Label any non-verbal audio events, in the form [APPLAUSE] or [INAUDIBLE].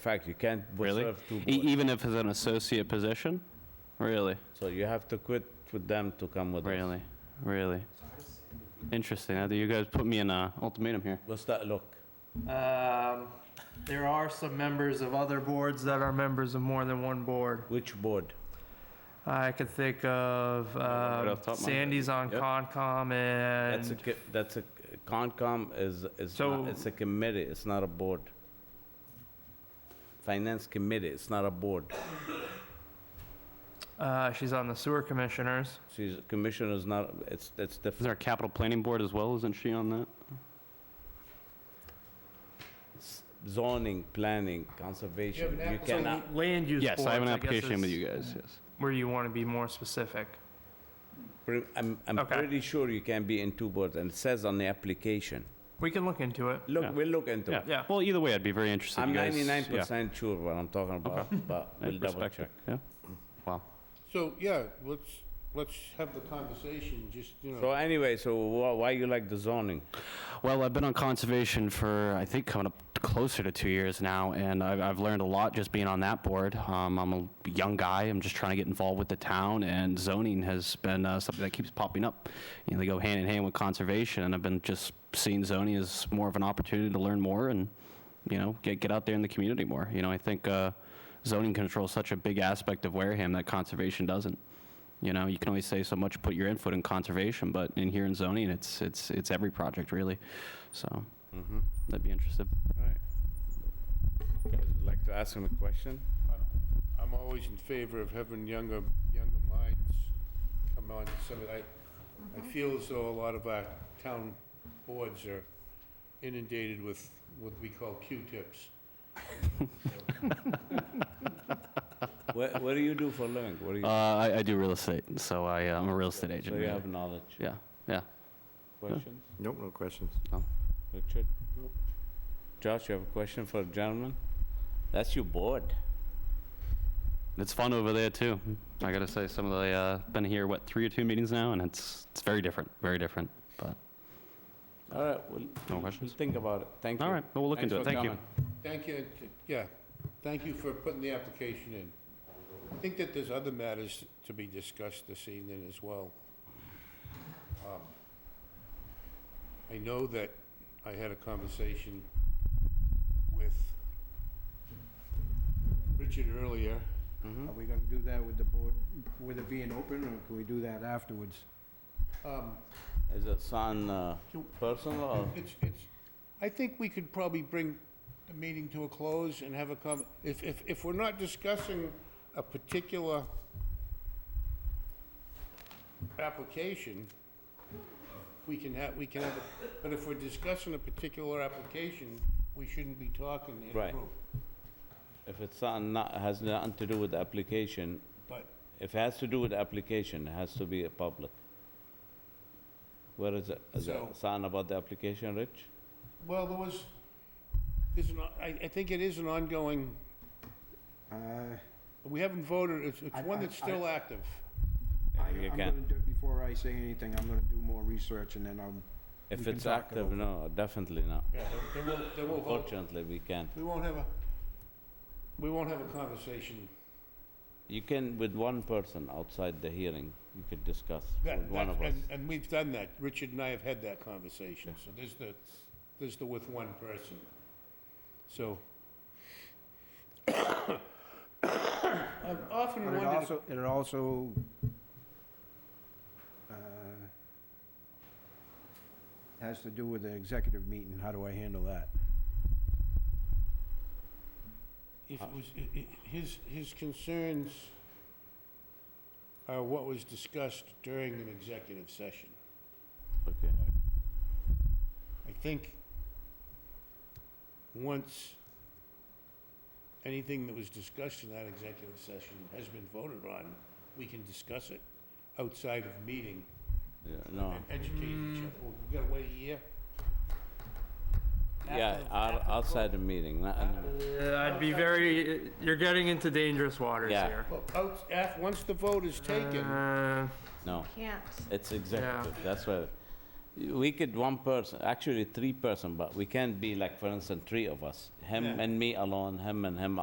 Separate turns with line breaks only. fact, you can't
Really?
serve two
E-
boards.
Even if it's an associate position? Really?
So you have to quit with them to come with us.
e- Really? Really? Interesting. Now that you guys put me in a ultimatum here.
What's that look?
Um, there are some members of other boards that are members of more than one board.
Which board?
I could think of
Right
um,
off the top of my head.
Sandy's on
Yep.
Concom
That's a,
and
co- that's a, Concom is, is,
So-
not- it's a committee, it's not a board. Finance committee, it's not a board.
uh, she's on the sewer commissioners.
She's, commissioner's not, it's, it's
Is
different.
our capital planning board as well? Isn't she on that?
S- Zoning, planning, conservation, you cannot.
Land use
Yes, I have an
boards, guess,
application with
is
you guys, yes.
Where you want to be more specific.
pre- I'm, I'm
Okay.
pretty sure you can be in two boards, and it says on the application.
We can look into it.
Look,
Yeah.
we'll look into it.
Yeah,
Yeah.
well, either way, I'd be very interested.
I'm
You guys-
ninety-nine
yeah.
percent sure what I'm talking about, but
I
we'll double
respect it.
check.
Yeah.
So, yeah, let's, let's have the conversation, just, you know.
So anyway, so wh- why you like the zoning?
Well, I've been on conservation for, I think, coming up closer to two years now, and I've, I've learned a lot just being on that board. Um, I'm a young guy, I'm just trying to get involved with the town, and zoning has been uh, something that keeps popping up. You know, they go hand in hand with conservation, and I've been just seeing zoning as more of an opportunity to learn more and, you know, get, get out there in the community more. You know, I think uh, zoning control is such a big aspect of Wareham that conservation doesn't. You know, you can only say so much, put your input in conservation, but in here in zoning, it's, it's, it's every project really. So
Mhm.
that'd be interesting.
All right. Would like to ask him a question?
I'm always in favor of having younger, younger minds come on to some of that. I feel as though a lot of our town boards are inundated with what we call Q-tips.
What, what do you do for a living? What do
Uh,
you,
I, I do real estate, so I, uh, I'm a real estate
so
agent.
you
yeah.
have knowledge?
Yeah, yeah.
Questions?
Nope, no questions.
Richard? Josh, you have a question for a gentleman? That's your board.
It's fun over there too. I gotta say, some of the, uh, been here, what, three or two meetings now, and it's, it's very different, very different.
All right, we'll, we'll
questions?
think about it. Thank you.
All right, well, we'll look
Thanks
into it.
for
Thank you.
coming.
Thank you, and, yeah, thank you for putting the application in. I think that there's other matters to be discussed this evening as well. Um, I know that I had a conversation with Richard earlier.
Are we gonna do that with the board, with it being open, or can we do that afterwards?
Um,
Is it son, uh, personal or?
It's, it's, I think we could probably bring the meeting to a close and have a com, if, if, if we're not discussing a particular application, we can have, we can have, a- but if we're discussing a particular application, we shouldn't be talking in a
Right.
group.
If it's something not, has nothing to do with the application,
But
if it has to do with the application, it has to be a public. Where is it? Is
So-
it something about the application, Rich?
Well, there was, there's an, I, I think it is an ongoing,
Uh,
we haven't voted, it's, it's
I-
one
I-
that's still active.
Yeah,
I-
you
I'm
can.
gonna do, before I say anything, I'm gonna do more research, and then I'll,
If
We can
it's
talk it
active,
over.
no, definitely not.
Yeah, then we'll, then we'll vote.
Unfortunately, we can't.
We won't have a, we won't have a conversation.
You can, with one person outside the hearing, you could discuss
That-
with one
that-
of us.
and- And we've done that. Richard and I have had that conversation. So there's the, there's the with one person. So. [COUGHS] I've often
but it
wondered,
also, it also, uh, has to do with the executive meeting, how do I handle that?
if it was, i- i- his, his concerns are what was discussed during an executive session.
Okay.
I think once anything that was discussed in that executive session has been voted on, we can discuss it outside of meeting
Yeah, No,
and educate each other. We've got to wait a year?
yeah, out- outside the meeting, not, in-
Uh, I'd be very, you're getting into dangerous waters
Yeah.
here.
Well, out, af, once the vote is taken,
Uh,
no,
Can't.
it's executive, that's why. We could one person, actually three person, but we can't be like, for instance, three of us. Him
Yeah.
and me alone, him and him